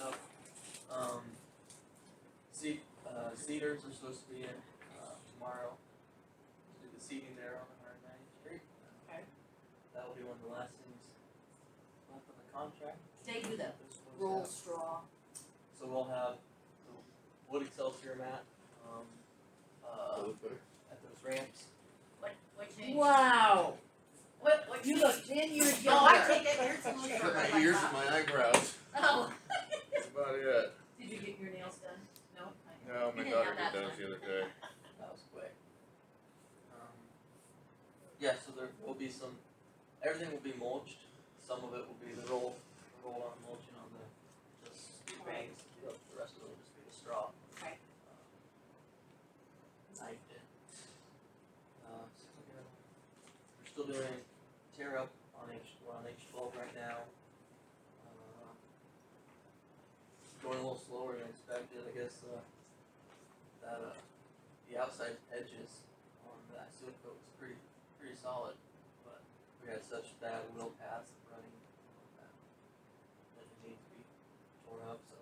Uh-huh. Um, uh, Cedars are supposed to be in, uh, tomorrow to do the seeding there on Hundred Ninth Street. Okay. That will be one of the last things left on the contract. They do the that they're supposed to roll have. straw. So we'll have the wood excelsior mat, um, uh, at those ramps. What, what changed? Wow, What, what you changed? look ten years No, I younger. take that back, it's a little short, like Ears and that. my eyebrows, Oh, that's about it. did you get your nails done? No? I- No, You my didn't daughter have that did those the one. other day. That was quick. Um, yeah, so there will be some, everything will be mulched, some of it will be the roll, the roll on mulching on the, just, Right. the rest of it will just be the straw. Um, Right. Knifed in. Uh, so we're gonna- we're still doing tear up on H, we're on H twelve right now. Uh, Going a little slower than expected, I guess, uh, that, uh, the outside edges on that seal coat was pretty, pretty solid, but we had such bad wheel paths running that, that it needed to be tore up, so.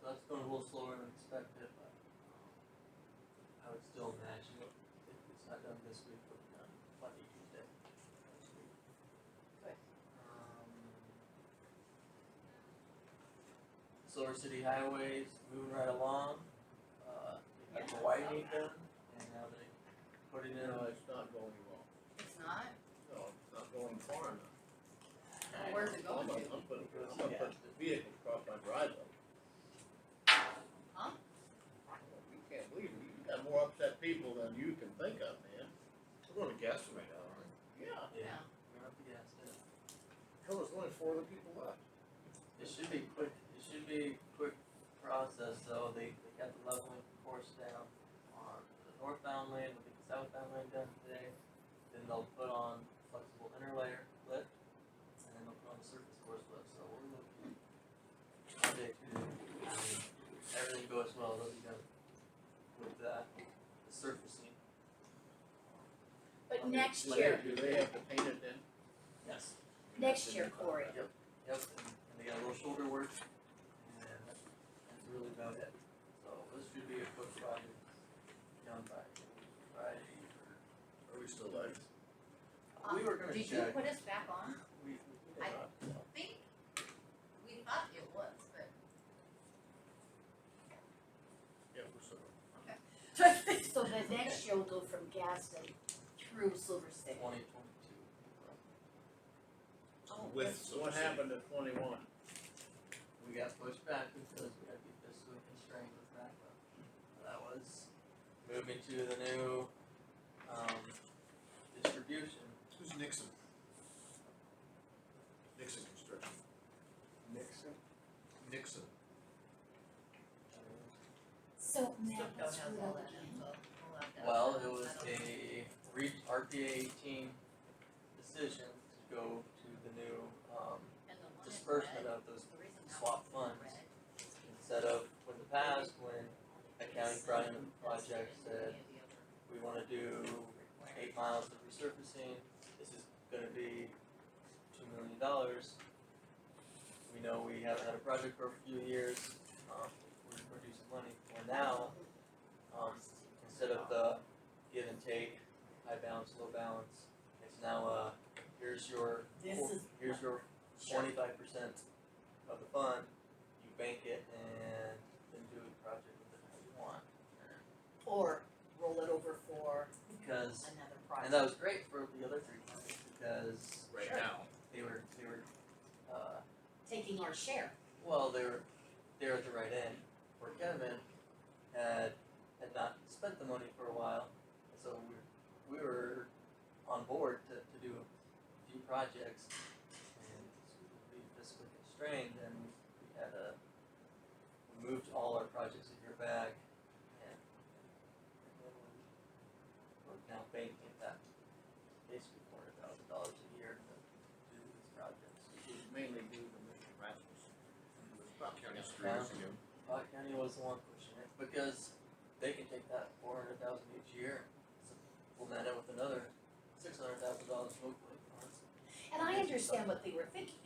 So that's going a little slower than expected, but, um, I would still imagine if it's not done this week, it'll be done by the Tuesday. next week. Good. Um. Silver City Highways moving right along, uh, they got the Yeah. widening done, and now they put it in No, a, it's not going well. It's not? No, it's not going far enough. Well, Where's it I'm going gonna, to? I'm gonna, I'm gonna put the vehicle across my driveway. Huh? You can't believe it. You got more upset people than you can think of, man. We're going to gas them right now, aren't Yeah. yeah, we're up against it. Hell, there's only four other people left. It should be quick, it should be quick process, though, they, they got the leveling course down on the northbound lane, with the southbound lane done today. Then they'll put on flexible interlayer lift, and then they'll put on the surface course lift, so we're looking. Monday, Tuesday, if everything goes well, they'll be done with that, the surfacing. But Okay, next Do they- year, Do they have to paint it then? Yes. next year, Corey, Yep, and, and they got a little shoulder work, and that's really about it. So this should be a quick project, done by Friday. Are we still live? We were gonna Um, Did you check, put us back on? we, we. I- Think, we thought it was, but. Yeah, we're still. so the next year will go from Gaston through Silver State. Twenty twenty-two. Oh, With- that's- So what happened at twenty-one? We got pushed back because we had to be fiscally constrained with NACA. That was moving to the new, um, distribution. Who's Nixon? Nixon Construction. Nixon? Nixon. So now Still it's don't have all real that again. info. We'll have to- Well, it was I don't- a re- RPA eighteen decision to go to the new, um, And the one in disbursement red, of those the reason that swap one's in funds. red instead of, when the past, when a county brought in a is project in said, any of the other we wanna do required- eight miles of resurfacing, this is gonna be two million dollars. We know we haven't had a project for a few years, um, we're producing money, well now, um, instead of the give and take, high balance, low balance, it's now, uh, here's your, This four- is- here's your twenty-five percent of the fund, you bank it and then do the project with it how you want. Or roll it over for Because, another and that project. was great for the other three projects, because Right Sure. now. they were, they were, uh, Taking our share. well, they were, they were at the right end, where Kevin had, had not spent the money for a while, and so we, we were on board to, to do a few projects, and we were fiscally constrained, and we had a, we moved all our projects a year back, and, and then we- we're now banking that basically four hundred thousand dollars a year to do these projects. It was mainly due to Mr. Rasmussen. It About was probably- county streets again. Pot County was the one pushing it because they can take that four hundred thousand each year, so we'll net it with another six hundred thousand dollars locally. And I understand what they were thinking,